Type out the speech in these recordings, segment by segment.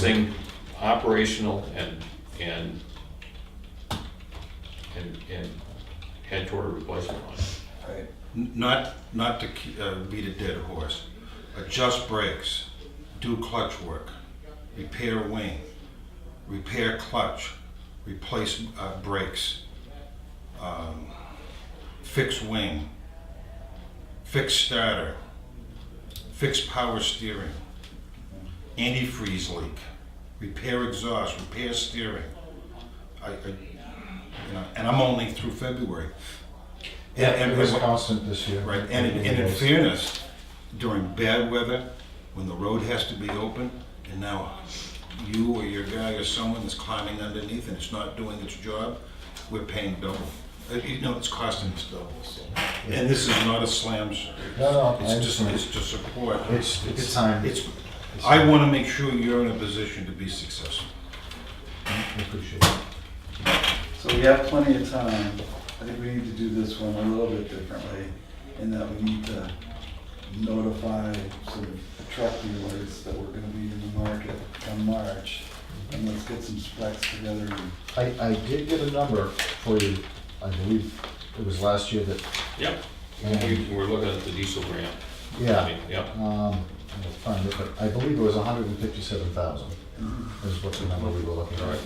Thing operational and, and, and, and head toward a replacement line. Right. N- Not, not to ke- uh, beat a dead horse. Adjust brakes, do clutch work, repair wing, repair clutch, replace uh, brakes, um, fix wing, fix starter, fix power steering, antifreeze leak, repair exhaust, repair steering. I, I, you know, and I'm only through February. Yeah, And- it and- was constant this year. Right, and, in- and in fairness, during bad weather, when the road has to be open, and now you or your guy or someone is climbing underneath and it's not doing its job, we're paying double. Uh, You know, it's costing us double, so. And this is not a slam, sir. No, no, I It's just, understand. it's to support. It's, it's time. It's, I want to make sure you're in a position to be successful. I appreciate it. So we have plenty of time. I think we need to do this one a little bit differently in that we need to notify some truck dealers that we're gonna be in the market come March. And let's get some specs together and I, I did get a number for you, I believe it was last year that, Yep, and, we, we're looking at the diesel grant. I yeah, mean, Yep, um, I'll find it, but I believe it was hundred and fifty-seven thousand is what the number we were looking at. Right.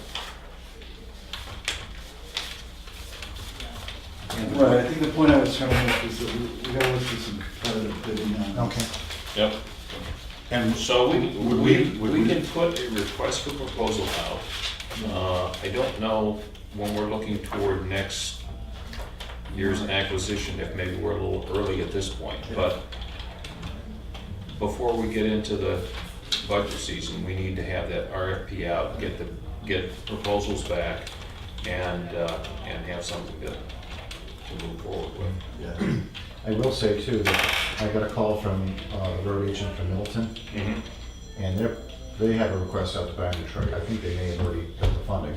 And Right, I think the point I was trying to make is that we we gotta look for some competitive bidding on Okay, this. yep. And So we, Would we, we- would we we- can put a request for proposal out. Uh, I don't know when we're looking toward next year's acquisition, if maybe we're a little early at this point, but before we get into the budget season, we need to have that RFP out, get the, get proposals back, and, uh, and have something to, to move forward with. yeah. I will say too, that I got a call from, uh, the road agent from Middleton, and they're, they have a request out to buy a new truck. I think they may have already got the funding,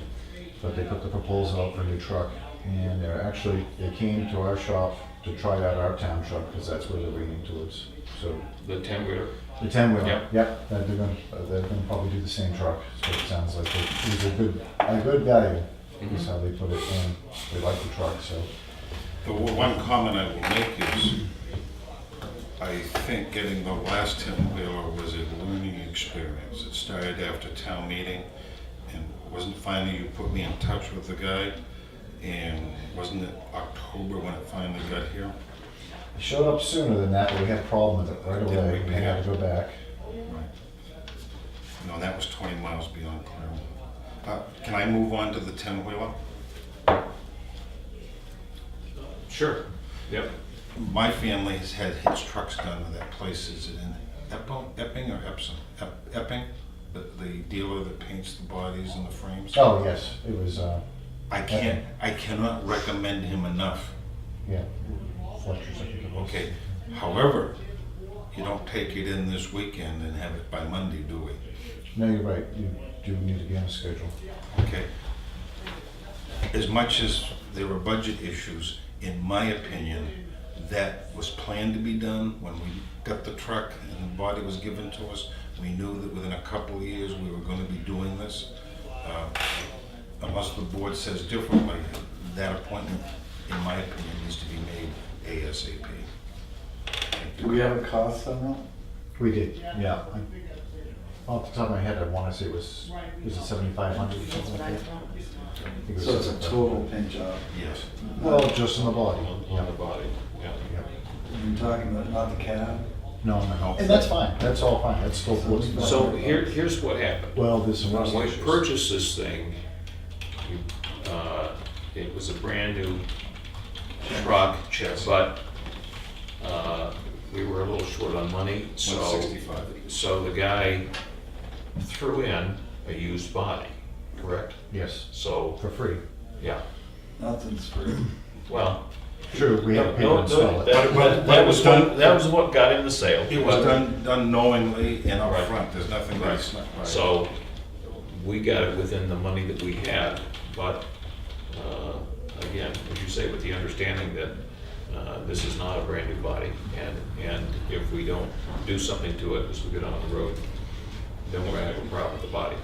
but they put the proposal out for a new truck. And they're actually, they came to our shop to try out our town truck, because that's where they're leaning towards. So The ten-wheeler, the ten wheeler, Yep. yep, that they're gonna, uh, they're gonna probably do the same truck, is what it sounds like. It was a good, a good value, is how they put it, and they like the truck, so. The o- one comment I will make is, I think getting the last ten-wheeler was a learning experience. It started after town meeting, and wasn't finally, you put me in touch with the guy, and wasn't it October when it finally got here? It Showed up sooner than that, but we had a problem with it right Yeah, away, we- we had to go back. No, that was twenty miles beyond Claremont. Uh, Can I move on to the ten-wheeler? sure, yep. My family has had his trucks done with that place, is it in Epping, Epping or Epsom? Ep- Epping, the the dealer that paints the bodies and the frames? Oh, yes, it was, uh, I can't, I cannot recommend him enough, yeah, Fletcher's, I think it was. okay? However, you don't take it in this weekend and have it by Monday, do we? No, you're right, you do need to be on a schedule. Okay? As much as there were budget issues, in my opinion, that was planned to be done when we got the truck and the body was given to us. We knew that within a couple of years, we were gonna be doing this. Uh, Unless the board says differently, that appointment, in my opinion, needs to be made ASAP. Do we have a cost on We did, yeah. I- Off the top of my head, I wanna say it was, was it seventy-five hundred or something like that? I think it that? was So it's a 75. total paint job. Yes. Well, just on the body. On the body, yeah. Yeah. You're talking about not the cab? No, no, no, and that's fine, that's all fine, that's still. what's- So here, here's what happened. Well, there's some rust When we issues. purchased this thing, we, uh, it was a brand-new truck, but uh, we were a little short on money, so. 165. So the guy threw in a used body, correct? Yes, So, for free. yeah, Nothing's free. well. True, we had to pay to no, no, install it. That But- that but was, it was what- done- that was what got him the sale. It was done done knowingly and Right. upfront, there's nothing Right. that's not right. So, we got it within the money that we had, but, uh, again, as you say, with the understanding that, uh, this is not a brand new body, and, and if we don't do something to it as we get on the road, then we're gonna have a problem with the body.